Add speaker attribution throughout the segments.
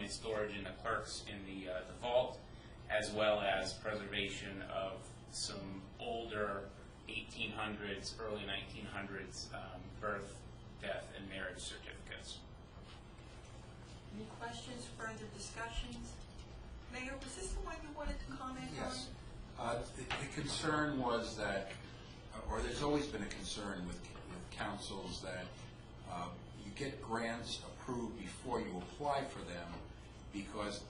Speaker 1: and storage in the clerks in the, uh, the vault, as well as preservation of some older eighteen hundreds, early nineteen hundreds, um, birth, death, and marriage certificates.
Speaker 2: Any questions, further discussions? Mayor, was this the one you wanted to comment on?
Speaker 3: Yes. Uh, The the concern was that, uh, or there's always been a concern with with councils that uh, you get grants approved before you apply for them because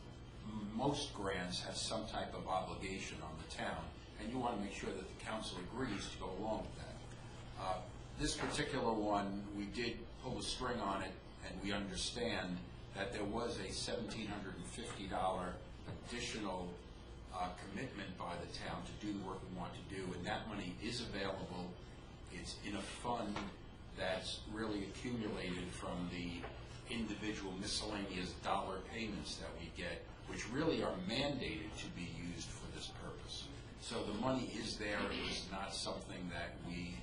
Speaker 3: m- most grants have some type of obligation on the town, and you want to make sure that the council agrees to go along with that. Uh, This particular one, we did pull the string on it, and we understand that there was a $1,750 additional uh, commitment by the town to do the work we want to do, and that money is available. It's in a fund that's really accumulated from the individual miscellaneous dollar payments that we get, which really are mandated to be used for this purpose. So the money is there, it is not something that we,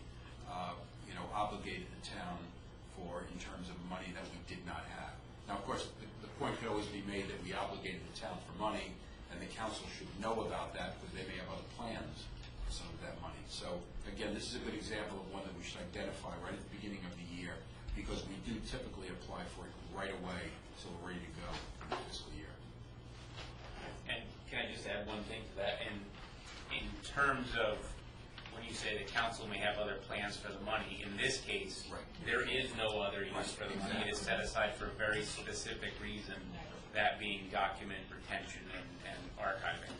Speaker 3: uh, you know, obligated the town for in terms of money that we did not have. Now, of course, the, the point could always be made that we obligated the town for money, and the council should know about that, because they may have other plans for some of that money. So, again, this is a good example of one that we should identify right at the beginning of the year, because we do typically apply for it right away, so we're ready to go for the fiscal year.
Speaker 1: And can I just add one thing to that? And in terms of, when you say the council may have other plans for the money, in this case,
Speaker 3: Right.
Speaker 1: there is no other use for the money. It is set aside for a very specific reason, that being document retention and, and archiving.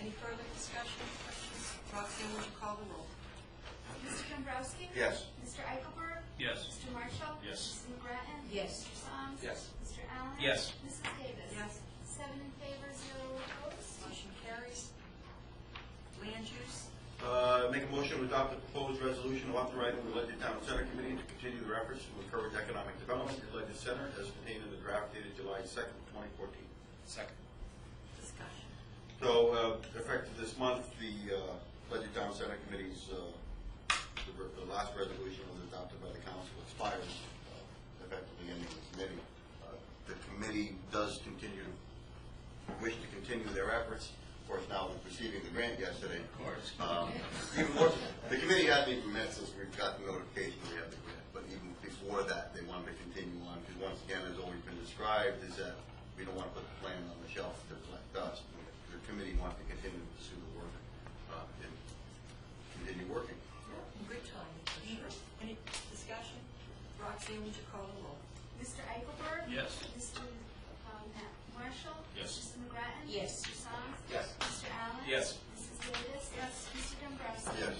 Speaker 2: Any further discussion, questions? Roxanne, would you call the roll?
Speaker 4: Mr. Dombrowski?
Speaker 3: Yes.
Speaker 4: Mr. Eichelberg?
Speaker 1: Yes.
Speaker 4: Mr. Marshall?
Speaker 1: Yes.
Speaker 4: Mrs. McGrattan?
Speaker 5: Yes.
Speaker 4: Mr. Song?
Speaker 3: Yes.
Speaker 4: Mr. Allen?
Speaker 1: Yes.
Speaker 4: Mrs. Davis?
Speaker 2: Yes,
Speaker 4: Seven in favor, zero opposed.
Speaker 2: motion carries. Land use,
Speaker 6: Uh, Make a motion to adopt the proposed resolution authorizing the Ledger Town Center Committee to continue their efforts to encourage economic development at Ledger Center as contained in the draft dated July second, twenty fourteen.
Speaker 1: Second.
Speaker 2: discussion.
Speaker 6: So, uh, effective this month, the uh, Ledger Town Center Committee's, uh, the re- the last resolution was adopted by the council expires uh, effectively ending the committee. Uh, The committee does continue, wish to continue their efforts. Of course, now we're receiving the grant yesterday. Of course. Even more, the committee hasn't even met since we've got the notification we have the grant, but even before that, they wanted to continue on, because once again, as always been described, is that we don't want to put the plan on the shelf to reflect us. The committee wants to continue to pursue the work, uh, and continue working.
Speaker 2: Good timing, for sure. Any discussion? Roxanne, would you call the roll?
Speaker 4: Mr. Eichelberg?
Speaker 1: Yes.
Speaker 4: Mr. um, Marshall?
Speaker 1: Yes.
Speaker 4: Mrs. McGrattan?
Speaker 5: Yes.
Speaker 4: Mr. Song?
Speaker 3: Yes.
Speaker 4: Mr. Allen?
Speaker 1: Yes.
Speaker 4: Mrs. Davis? Yes. Mr. Dombrowski?
Speaker 6: Yes.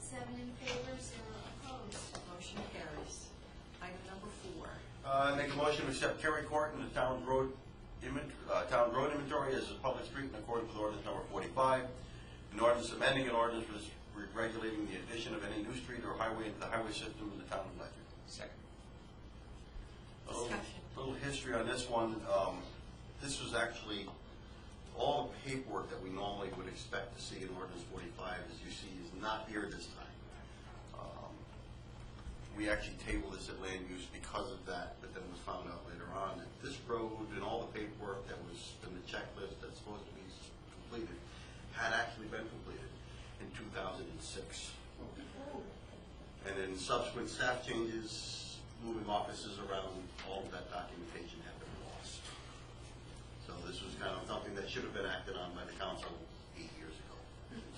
Speaker 4: Seven in favor, zero opposed.
Speaker 2: Motion carries. Item number four,
Speaker 6: Uh, make a motion to accept Terry Court in the town road invent, uh, town road inventory as a public street in accordance with ordinance number forty-five. An ordinance amending an ordinance res- regulating the addition of any new street or highway into the highway system in the town of Ledger.
Speaker 1: Second.
Speaker 6: A little-
Speaker 2: Discussion.
Speaker 6: Little history on this one. Um, This was actually, all the paperwork that we normally would expect to see in ordinance 45, as you see, is not here this time. Um, We actually tabled this at land use because of that, but then was found out later on that this road and all the paperwork that was in the checklist that's supposed to be s- completed had actually been completed in 2006. And then subsequent staff changes, moving offices around, all of that documentation had been lost. So this was kind of something that should have been acted on by the council eight years ago.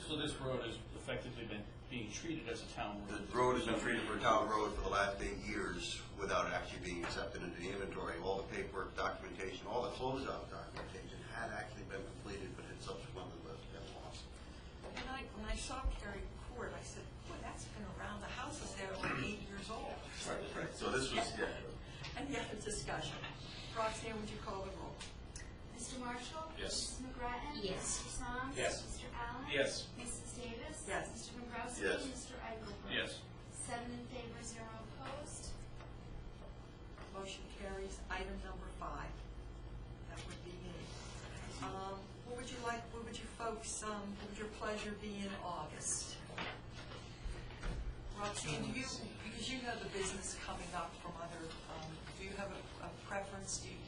Speaker 7: So this road has effectively been being treated as a town road?
Speaker 6: The road has been treated for a town road for the last eight years without actually being accepted into the inventory. All the paperwork, documentation, all the closeout documentation had actually been completed, but had subsequently been lost.
Speaker 2: When I, when I saw Carrie Court, I said, boy, that's been around, the house is there like eight years old.
Speaker 6: Right, right. So this was, yeah,
Speaker 2: Any other discussion? Roxanne, would you call the roll?
Speaker 4: Mr. Marshall?
Speaker 1: Yes.
Speaker 4: Mrs. McGrattan?
Speaker 5: Yes.
Speaker 4: Mr. Song?
Speaker 1: Yes.
Speaker 4: Mr. Allen?
Speaker 1: Yes.
Speaker 4: Mrs. Davis?
Speaker 2: Yes.
Speaker 4: Mr. Dombrowski?
Speaker 6: Yes.
Speaker 4: Mr. Eichelberg?
Speaker 7: Yes.
Speaker 4: Seven in favor, zero opposed.
Speaker 2: Motion carries. Item number five. That would be me. Um, What would you like, what would you folks, um, what would your pleasure be in August? Roxanne, do you, because you know the business coming up from other, um, do you have a a preference? Do you